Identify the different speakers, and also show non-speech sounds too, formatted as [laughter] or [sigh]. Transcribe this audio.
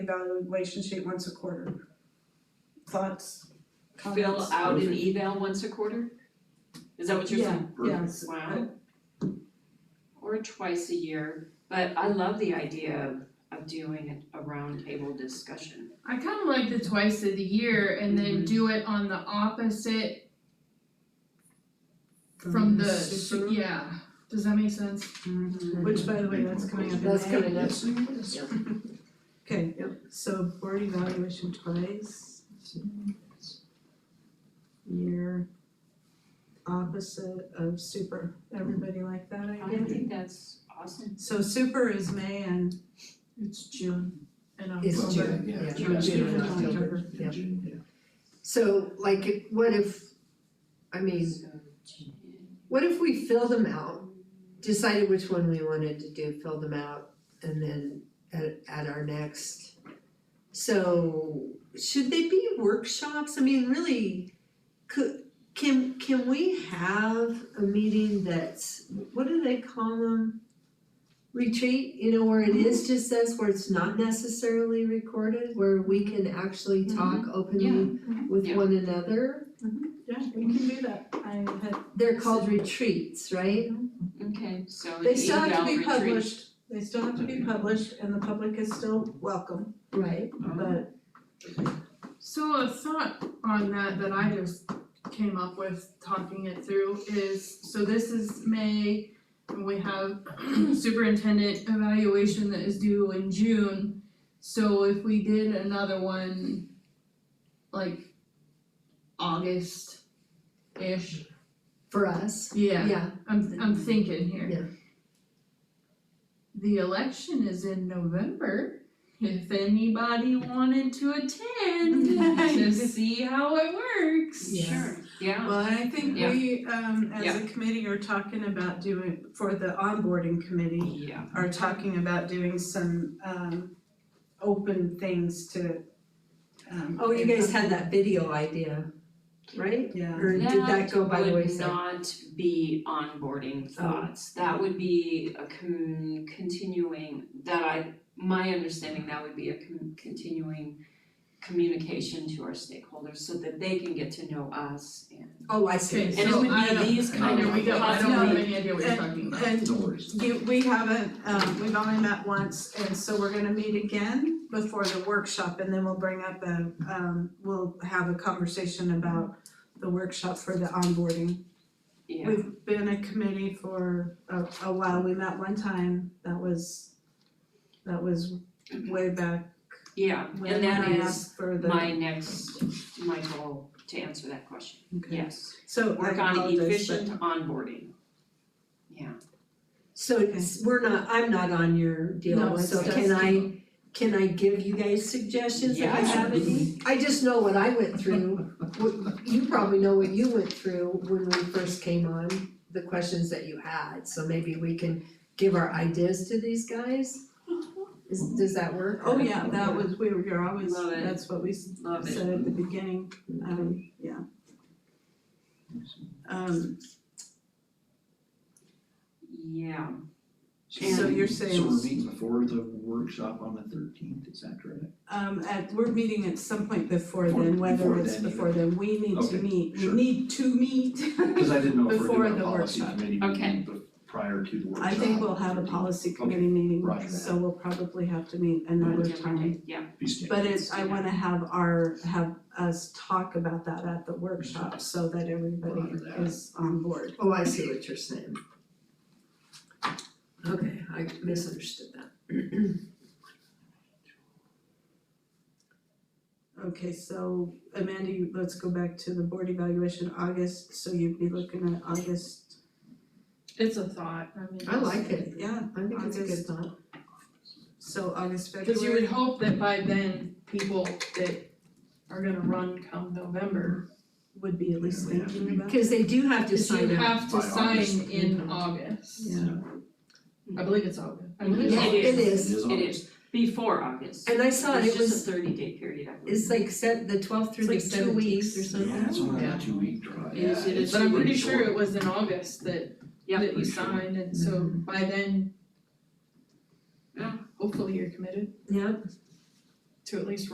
Speaker 1: evaluation sheet once a quarter. Thoughts,
Speaker 2: fill
Speaker 1: comments?
Speaker 2: out an eval once a quarter? Is that what you're saying?
Speaker 1: Yeah,
Speaker 2: Wow. Or twice a year, but I love the idea of of doing a roundtable discussion.
Speaker 3: I kind of like the twice of the year and then
Speaker 2: Mhm.
Speaker 3: do it on the opposite from, the
Speaker 1: super-
Speaker 3: yeah. Does that make sense?
Speaker 1: Which by the way, that's coming up in
Speaker 4: That's
Speaker 1: May.
Speaker 4: coming up.
Speaker 1: Okay, so board evaluation twice. Year opposite of super, everybody like that, I
Speaker 2: I
Speaker 1: guess?
Speaker 2: think that's awesome.
Speaker 1: So super is May and
Speaker 3: It's June and October.
Speaker 4: It's June.
Speaker 5: Yeah,
Speaker 4: Yeah.
Speaker 1: June,
Speaker 5: June, June,
Speaker 1: October.
Speaker 5: October, yeah,
Speaker 4: Yeah.
Speaker 5: June, yeah.
Speaker 4: So like, if- what if, I mean, what if we fill them out? Decided which one we wanted to do, fill them out, and then at at our next. So should they be workshops? I mean, really, could, can can we have a meeting that's, what do they call them? Retreat, you know, where it is just us, where it's not necessarily recorded, where we can actually talk openly with
Speaker 2: Mm-hmm. Yeah.
Speaker 4: one another?
Speaker 1: Mm-hmm. Yeah, we can do that. I had,
Speaker 4: They're called retreats, right?
Speaker 2: Okay, so an
Speaker 1: they still have to
Speaker 2: eval
Speaker 1: be
Speaker 2: retreat.
Speaker 1: published, they still have to be published and the public is still welcome,
Speaker 4: Right.
Speaker 5: Uh,
Speaker 1: but
Speaker 3: So a thought on that that I just came up with talking it through is, so this is May. And we have [clears throat] superintendent evaluation that is due in June. So if we did another one, like August-ish,
Speaker 4: For us,
Speaker 3: yeah,
Speaker 4: yeah,
Speaker 3: I'm I'm thinking here.
Speaker 4: Yeah.
Speaker 3: The election is in November. If anybody wanted to
Speaker 4: [laughs]
Speaker 3: attend to see how it works.
Speaker 4: Yeah.
Speaker 2: Sure, yeah.
Speaker 1: Well, and I think
Speaker 2: Yeah.
Speaker 1: we, um, as
Speaker 2: Yeah.
Speaker 1: a committee are talking about doing, for the onboarding committee,
Speaker 2: Yeah.
Speaker 1: are talking about doing some, um, open things to, um.
Speaker 4: Oh, you guys had that video idea, right?
Speaker 1: Yeah.
Speaker 4: Or did that go by the wayside? Oh.
Speaker 2: would not be onboarding thoughts, that would be a con- continuing, that I, my understanding, that would be a con- continuing communication to our stakeholders so that they can get to know us and
Speaker 4: Oh, I see.
Speaker 3: Okay,
Speaker 2: and it
Speaker 3: so
Speaker 2: would
Speaker 3: I
Speaker 2: be
Speaker 3: don't-
Speaker 2: these
Speaker 3: I
Speaker 2: kind
Speaker 3: know
Speaker 2: of
Speaker 3: we
Speaker 2: possibly.
Speaker 3: don't, I don't have any idea what you're talking about.
Speaker 1: And
Speaker 5: No worries.
Speaker 1: you, we haven't, um, we've only met once, and so we're gonna meet again before the workshop, and then we'll bring up a, um, we'll have a conversation about the workshop for the onboarding.
Speaker 2: Yeah,
Speaker 1: We've been a committee for a, a while, we met one time, that was, that was way back
Speaker 2: yeah,
Speaker 1: when,
Speaker 2: and
Speaker 1: when
Speaker 2: that
Speaker 1: I
Speaker 2: is
Speaker 1: asked for the, okay.
Speaker 2: my next, my goal to answer that question, yes.
Speaker 1: So I
Speaker 2: Work on
Speaker 1: apologize, but-
Speaker 2: efficient onboarding. Yeah,
Speaker 4: So it's, we're not, I'm not on your
Speaker 1: No,
Speaker 4: deal,
Speaker 1: it's
Speaker 4: so
Speaker 1: just-
Speaker 4: can I, can I give you guys suggestions if I
Speaker 2: Yeah.
Speaker 4: have any? I just know what I went through, What- you probably know what you went through when we first came on, the questions that you had, so maybe we can give our ideas to these guys? Is, does that work?
Speaker 1: Oh, yeah, that was, we were, you're always,
Speaker 2: Love it.
Speaker 1: that's what we s-
Speaker 2: love it.
Speaker 1: said at the beginning, um, yeah. Um,
Speaker 2: Yeah,
Speaker 1: so you're saying,
Speaker 5: So we're meeting before the workshop on the thirteenth, is that correct?
Speaker 1: um, at, we're meeting at some point before then,
Speaker 5: Before-
Speaker 1: whether
Speaker 5: before
Speaker 1: it's
Speaker 5: then,
Speaker 1: before then, we need to
Speaker 5: Okay,
Speaker 1: meet, we
Speaker 5: sure.
Speaker 1: need to meet. [laughs]
Speaker 5: Cause I didn't know if we're
Speaker 1: Before
Speaker 5: doing
Speaker 1: the
Speaker 5: a policy
Speaker 1: workshop.
Speaker 5: committee
Speaker 2: Okay.
Speaker 5: meeting bef- prior to the workshop.
Speaker 1: I think we'll have a
Speaker 5: 13th.
Speaker 1: policy
Speaker 5: Okay,
Speaker 1: committee meeting,
Speaker 5: roger
Speaker 1: so we'll probably have to meet another
Speaker 2: Yeah,
Speaker 1: time.
Speaker 2: yeah,
Speaker 5: Be standing.
Speaker 1: But it's, I wanna have our, have us talk about that at the workshop so that everybody
Speaker 5: Roger that.
Speaker 1: is on board.
Speaker 4: Oh, I see what you're saying. Okay, I misunderstood that. [clears throat]
Speaker 1: Okay, so Amanda, you- let's go back to the board evaluation, August, so you'd be looking at August,
Speaker 3: It's a thought, I mean.
Speaker 4: I like it,
Speaker 1: yeah,
Speaker 4: I think it's a good thought.
Speaker 1: so August, February.
Speaker 6: Cause you would hope that by then, people that are gonna run come November,
Speaker 1: would be at least
Speaker 5: Yeah, we have to
Speaker 1: thinking
Speaker 5: be-
Speaker 1: about.
Speaker 4: Cause they do have to
Speaker 6: that
Speaker 4: sign
Speaker 6: you
Speaker 4: up.
Speaker 6: have to
Speaker 5: By August.
Speaker 6: sign in August.
Speaker 1: Yeah.
Speaker 6: I believe it's August. I
Speaker 2: It
Speaker 6: believe
Speaker 2: is.
Speaker 4: Yeah, it
Speaker 5: It is
Speaker 4: is,
Speaker 2: it
Speaker 5: August.
Speaker 2: is, before August.
Speaker 4: and I saw it, it
Speaker 2: It's just
Speaker 4: was,
Speaker 2: a thirty day period, I believe.
Speaker 4: it's like set, the twelfth through the
Speaker 6: It's like two
Speaker 4: seventeenth or
Speaker 6: weeks.
Speaker 4: something.
Speaker 5: Yeah, it's only
Speaker 6: Yeah.
Speaker 5: a two week drive, yeah,
Speaker 6: Yes, it is,
Speaker 5: it's
Speaker 6: but I'm
Speaker 5: really
Speaker 6: pretty sure
Speaker 5: short.
Speaker 6: it was in August that
Speaker 2: Yeah.
Speaker 6: that you
Speaker 5: Pretty sure.
Speaker 6: signed, and so by then. Yeah, hopefully you're committed.
Speaker 4: Yep.
Speaker 3: to at least